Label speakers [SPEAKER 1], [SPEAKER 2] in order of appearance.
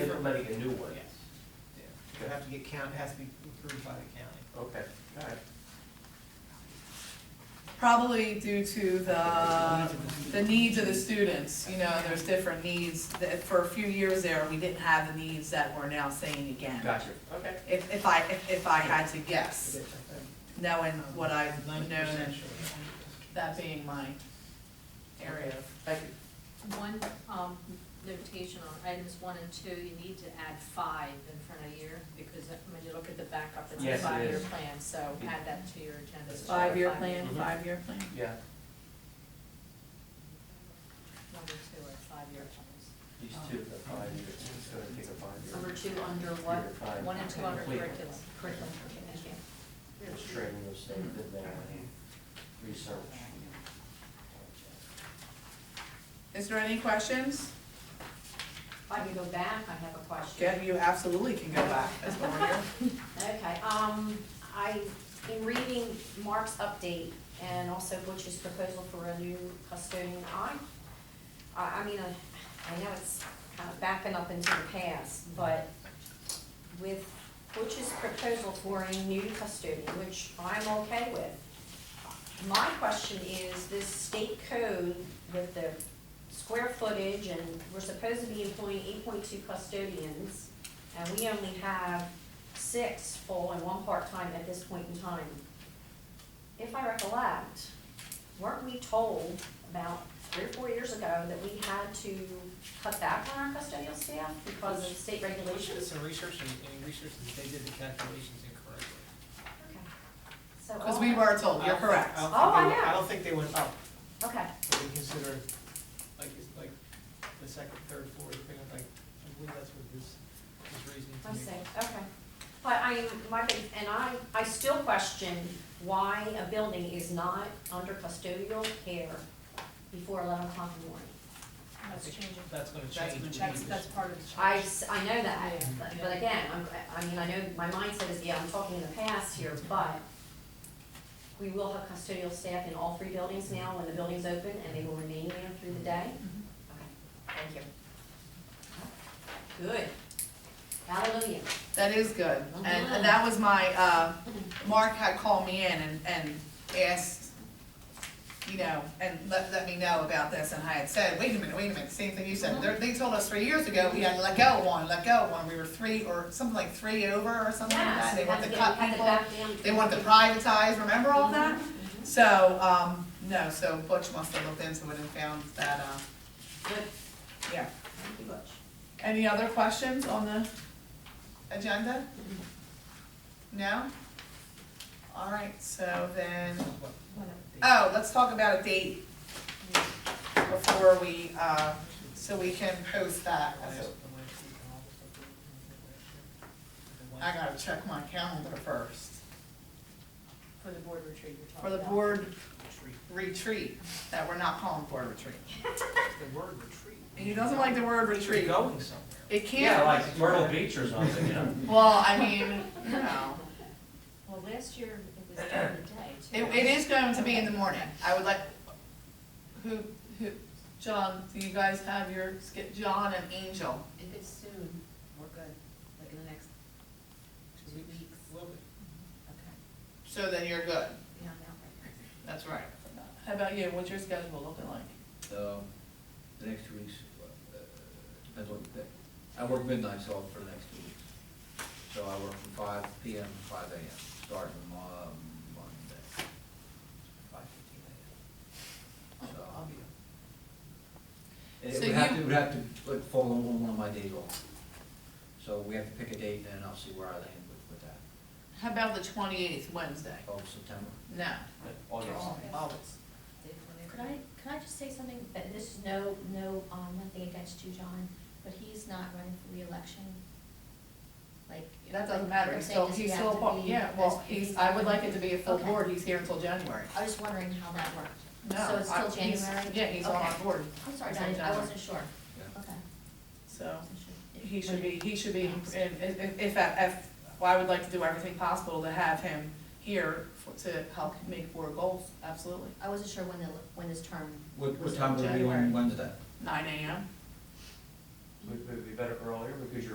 [SPEAKER 1] implementing a new one?
[SPEAKER 2] Yes. It have to get count, it has to be approved by the county.
[SPEAKER 1] Okay, all right.
[SPEAKER 3] Probably due to the, Uh, the needs of the students, you know, there's different needs. That- For a few years there, we didn't have the needs that we're now seeing again.
[SPEAKER 1] Gotcha, okay.
[SPEAKER 3] If, if I, if- if I had to guess, knowing what I've known
[SPEAKER 2] Ninety
[SPEAKER 3] and
[SPEAKER 2] percent sure.
[SPEAKER 3] that being my area of
[SPEAKER 1] Thank you.
[SPEAKER 4] One, um, notation on items one and two, you need to add five in front of year, because when you look at the backup, it's a
[SPEAKER 1] Yes, it
[SPEAKER 4] five-year
[SPEAKER 1] is.
[SPEAKER 4] plan, so add that to your agenda.
[SPEAKER 3] five-year plan,
[SPEAKER 1] Mhm.
[SPEAKER 3] five-year plan.
[SPEAKER 1] Yeah,
[SPEAKER 4] Number two are five-year plans.
[SPEAKER 1] these two, the five years, it's gonna take a five year.
[SPEAKER 4] Number two under
[SPEAKER 1] year
[SPEAKER 4] what?
[SPEAKER 1] to find
[SPEAKER 4] One and two under
[SPEAKER 1] complete
[SPEAKER 4] curriculum. Curriculum.
[SPEAKER 1] the String of stuff in there, research.
[SPEAKER 3] Is there any questions?
[SPEAKER 5] If I can go back, I have a question.
[SPEAKER 3] Yeah, you absolutely can go back, that's what we're here.
[SPEAKER 5] Okay, um, I, in reading Mark's update and also Butch's proposal for a new custodian, I, I, I mean, I, I know it's kind of backing up into the past, but with Butch's proposal for a new custodian, which I'm okay with, my question is, this state code with the square footage, and we're supposed to be employing eight point two custodians, and we only have six full and one part-time at this point in time. If I recollect, weren't we told about three or four years ago that we had to cut back on our custodial staff because of state
[SPEAKER 2] We should
[SPEAKER 5] regulations?
[SPEAKER 2] have some research and, and research that they did the calculations incorrectly.
[SPEAKER 5] Okay. So
[SPEAKER 3] Because
[SPEAKER 5] all
[SPEAKER 3] we
[SPEAKER 5] that-
[SPEAKER 3] were told, you're
[SPEAKER 2] I don't think-
[SPEAKER 3] correct.
[SPEAKER 2] don't
[SPEAKER 5] Oh,
[SPEAKER 2] think
[SPEAKER 5] I
[SPEAKER 2] they-
[SPEAKER 5] know.
[SPEAKER 2] I don't think they went up,
[SPEAKER 5] Okay,
[SPEAKER 2] but they considered, like, it's like the second, third, fourth, thing, like, I believe that's what this, this reasoning. to
[SPEAKER 5] I
[SPEAKER 2] me.
[SPEAKER 5] see, okay. But I, my, big- and I, I still question why a building is not under custodial care before eleven o'clock in the morning.
[SPEAKER 4] That's changing.
[SPEAKER 2] That's gonna
[SPEAKER 4] That's,
[SPEAKER 2] change.
[SPEAKER 4] that's, that's part of the change.
[SPEAKER 5] I, s- I know that,
[SPEAKER 4] Yeah.
[SPEAKER 5] but, but again, I'm, I mean, I know my mindset is, yeah, I'm talking in the past here, but we will have custodial staff in all three buildings now when the building's open, and they will remain there through the day? Okay, thank you. Good. Hallelujah.
[SPEAKER 3] That is Oh, good, and, and that was my, uh, Mark had called me in and, and asked, you know, and let, let me know about this, and I had said, wait a minute, wait a minute, same thing you said, They're- they told us three years ago, we had to let go of one, let go of one, we were three, or something like three over, or something like that,
[SPEAKER 5] Yes,
[SPEAKER 3] they
[SPEAKER 5] we
[SPEAKER 3] want
[SPEAKER 5] had
[SPEAKER 3] to
[SPEAKER 5] to get,
[SPEAKER 3] cut Mm-hmm.
[SPEAKER 5] we had to
[SPEAKER 3] people,
[SPEAKER 5] back down.
[SPEAKER 3] they want to privatize, remember all that?
[SPEAKER 5] Mhm,
[SPEAKER 3] So, um, no, so Butch must have looked into it and found that, uh,
[SPEAKER 5] mhm. Good,
[SPEAKER 3] yeah.
[SPEAKER 5] thank you, Butch.
[SPEAKER 3] Any other questions on the agenda? No? All right, so then, oh, let's talk about a date before we, uh, so we can post that. I gotta check my calendar first.
[SPEAKER 4] For the board retreat you're
[SPEAKER 3] For
[SPEAKER 4] talking
[SPEAKER 3] the
[SPEAKER 4] about.
[SPEAKER 3] board retreat, that we're not calling board retreat.
[SPEAKER 2] The word retreat.
[SPEAKER 3] And he doesn't like the word
[SPEAKER 2] You're
[SPEAKER 3] retreat.
[SPEAKER 2] Going somewhere.
[SPEAKER 3] It
[SPEAKER 1] Yeah,
[SPEAKER 3] can't,
[SPEAKER 1] like Myrtle Beach or something, you know?
[SPEAKER 3] well, I mean, you know.
[SPEAKER 4] Well, last year it was during the day too.
[SPEAKER 3] It, it is going to be in the morning, I would like, who, who, John, do you guys have your, sk- John and Angel?
[SPEAKER 6] If it's soon, we're good, like in the next two weeks.
[SPEAKER 2] Little bit.
[SPEAKER 6] Okay.
[SPEAKER 3] So then you're good,
[SPEAKER 6] Yeah, I'm out right now.
[SPEAKER 3] that's right. How about you, what's your schedule looking like?
[SPEAKER 7] um, the next two weeks, uh, depends what you pick. I work midnight, so for the next two weeks. So I work from five P M to five A M, starting Mon- Monday, five fifteen A M. So I'll be up.
[SPEAKER 3] Oh,
[SPEAKER 7] And
[SPEAKER 3] So
[SPEAKER 7] It would have
[SPEAKER 3] you-
[SPEAKER 7] to, it would have to, like, fall on one of my days off. So we have to pick a date, and I'll see where I land with, with that,
[SPEAKER 3] How about the twenty-eighth, Wednesday?
[SPEAKER 7] of September.
[SPEAKER 3] No,
[SPEAKER 1] August.
[SPEAKER 3] August.
[SPEAKER 6] They- when they-
[SPEAKER 5] Could I, could I just say something, that this is no, no, um, nothing against you, John, but he's not running for reelection. Like.
[SPEAKER 3] That doesn't
[SPEAKER 5] like,
[SPEAKER 3] matter,
[SPEAKER 5] we're
[SPEAKER 3] he's
[SPEAKER 5] saying,
[SPEAKER 3] still,
[SPEAKER 5] does he
[SPEAKER 3] he's
[SPEAKER 5] have
[SPEAKER 3] still,
[SPEAKER 5] to
[SPEAKER 3] appoint-
[SPEAKER 5] be-
[SPEAKER 3] yeah,
[SPEAKER 5] does-
[SPEAKER 3] well,
[SPEAKER 5] if
[SPEAKER 3] he's, I would like it to be a full
[SPEAKER 5] Okay.
[SPEAKER 3] board, he's here until January.
[SPEAKER 5] I was just wondering how that worked.
[SPEAKER 3] No,
[SPEAKER 5] So it's
[SPEAKER 3] I-
[SPEAKER 5] still
[SPEAKER 3] he's-
[SPEAKER 5] January?
[SPEAKER 3] Yeah, he's on our
[SPEAKER 5] Okay.
[SPEAKER 3] board,
[SPEAKER 5] I'm sorry,
[SPEAKER 3] It's on
[SPEAKER 5] Diane, I
[SPEAKER 3] January.
[SPEAKER 5] wasn't sure.
[SPEAKER 7] Yeah.
[SPEAKER 5] Okay.
[SPEAKER 3] so.
[SPEAKER 5] wasn't sure.
[SPEAKER 3] He should be, he should be,
[SPEAKER 5] Thanks.
[SPEAKER 3] and if, if- if, if, well, I would like to do everything possible to have him here for- to help make board goals, absolutely.
[SPEAKER 5] I wasn't sure when the, when his term.
[SPEAKER 7] What,
[SPEAKER 5] was
[SPEAKER 7] what
[SPEAKER 5] up.
[SPEAKER 7] time would it be
[SPEAKER 3] January.
[SPEAKER 7] on Wednesday?
[SPEAKER 3] Nine AM,
[SPEAKER 1] Would, would it be better earlier, because you're